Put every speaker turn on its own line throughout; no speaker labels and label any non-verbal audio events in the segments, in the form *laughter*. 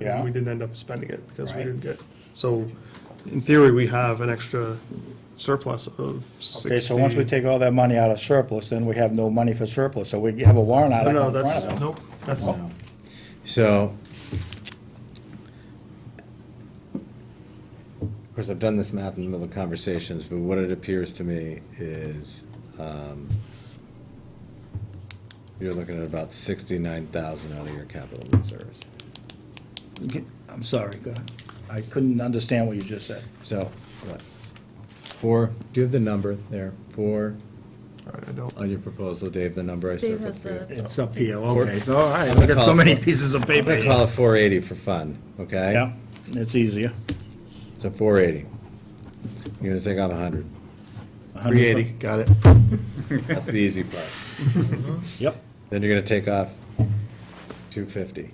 Yeah.
and we didn't end up spending it because we
Right.
didn't get, so in theory, we have an extra surplus of sixty.
Okay, so once we take all that money out of surplus, then we have no money for surplus, so we have a warrant
No,
article
no,
in front
that's,
of Oh. us.
nope, that's,
No. So, of course, I've done this math in the middle of conversations, but what it appears to me is um, you're looking at about 69,000 out of your capital reserves.
You can- I'm sorry, go ahead. I couldn't understand what you just said.
So, what? Four, do you have the number there? Four,
all right, I don't,
on your proposal, Dave, the number I
Dave
circled
has
for you.
the.
It's up here,
Thanks.
okay, so, all right,
I'm
we
gonna
got
call
so
it
many
for-
pieces of
I'm
paper
gonna call
here.
it 480 for fun, okay?
Yeah, it's easier.
So 480. You're gonna take on 100.
100
three eighty, got it.
That's the easy part.
Yep,
Then you're gonna take off two fifty.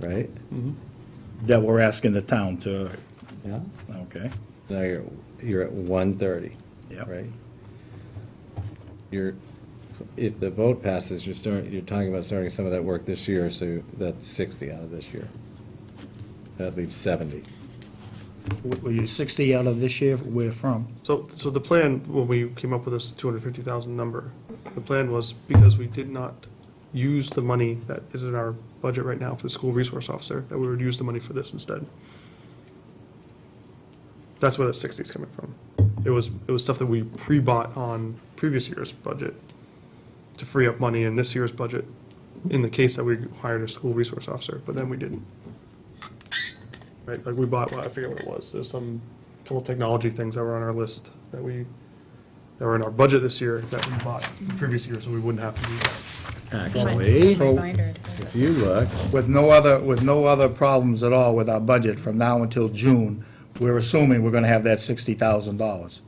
Right?
that we're asking the town to,
Yeah.
okay,
Now you're, you're at one thirty.
Yep.
Right? You're, if the vote passes, you're starting, you're talking about starting some of that work this year, so that's sixty out of this year. That leaves seventy.
W- were you 60 out of this year, where from?
So, so the plan, when we came up with this 250,000 number, the plan was because we did not use the money that is in our budget right now for the school resource officer, that we would use the money for this instead. That's where that 60 is coming from. It was, it was stuff that we pre-bought on previous year's budget to free up money in this year's budget, in the case that we hired a school resource officer, but then we didn't. Right, like we bought, well, I forget what it was, there's some couple technology things that were on our list that we, that were in our budget this year that we bought the previous year, so we wouldn't have to do that.
Actually,
My binder.
if you look,
With no other, with no other problems at all with our budget from now until June, we're assuming we're gonna have that $60,000.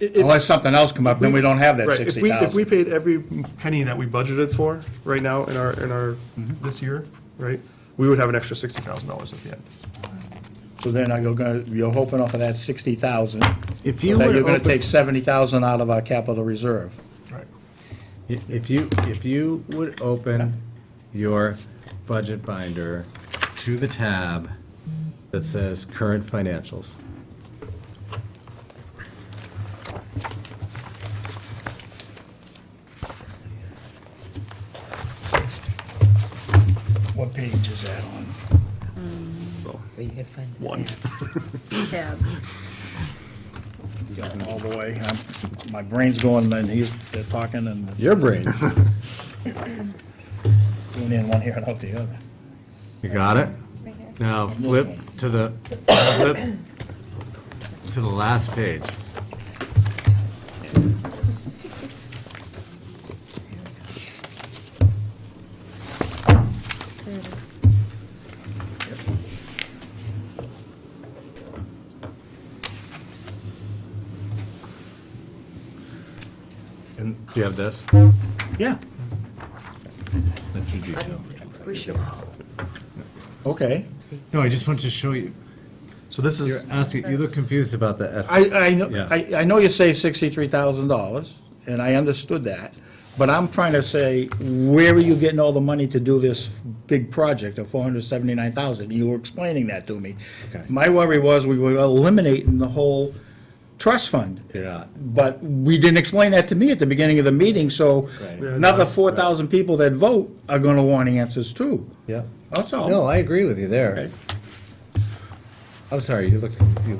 Unless something else come up, then we don't have that
Right, if we, if we
60,000.
paid every penny that we budgeted for right now in our, in our, this year, right, we would have an extra sixty thousand dollars at the end.
So then you're gonna, you're hoping off of that 60,000,
if
that
you
you're
were to
gonna
open-
take 70,000 out of our capital reserve.
Right.
If you, if you would open your budget binder to the tab that says current financials.
What page is that on?
One.
Tab.
Going all the way, I'm- my brain's going, and he's, they're talking and
Your brain.
doing in one ear and out the other.
You got it?
Right here.
Now flip to the, flip to the last page.
There it is.
And do you have this?
Yeah,
That's your detail.
okay.
No, I just wanted to show you.
So this
You're
is,
asking, you look confused about the S.
I, I know,
Yeah.
I, I know you say sixty-three thousand dollars, and I understood that, but I'm trying to say, where are you getting all the money to do this big project of four hundred seventy-nine thousand? You were explaining that to me.
Okay.
My worry was we were eliminating the whole trust fund.
You're not.
But we didn't explain that to me at the beginning of the meeting, so
Right. Yeah,
another four thousand people that vote are gonna want answers too.
Yep.
That's all.
No, I agree with you there.
Oh. Okay.
I'm sorry, you looked, you,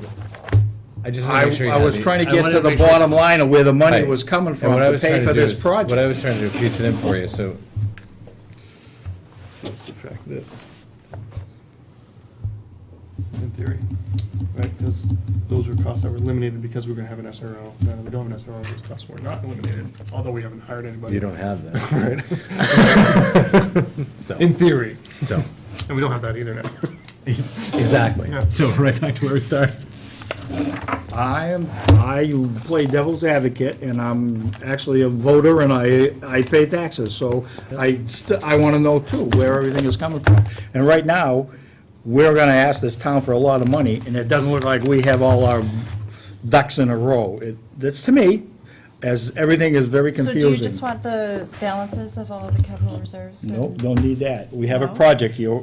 I just want
I,
to make sure you
I
had
was
the-
trying to
I
get
wanted
to the
make sure-
bottom line of where the money
Right.
was coming
And
from
what I
to
was trying
pay for
do
this
is- What I
project.
was trying to do, piece it in for you, so.
subtract this. In theory, right, because those were costs that were eliminated because we were gonna have an SRO, now that we don't have an SRO, those costs were not eliminated, although we haven't hired anybody.
You don't have that. *laughs* So,
In theory,
so,
and we don't have that either now. *laughs*
exactly. So right back to where we started.
I am, I play devil's advocate, and I'm actually a voter, and I, I pay taxes, so I, st- I want to know too, where everything is coming from. And right now, we're going to ask this town for a lot of money, and it doesn't look like we have all our ducks in a row. It- That's to me, as everything is very
So do
confusing.
you just want the balances of all the capital reserves?
Nope, don't need that. We have a
No?
project here,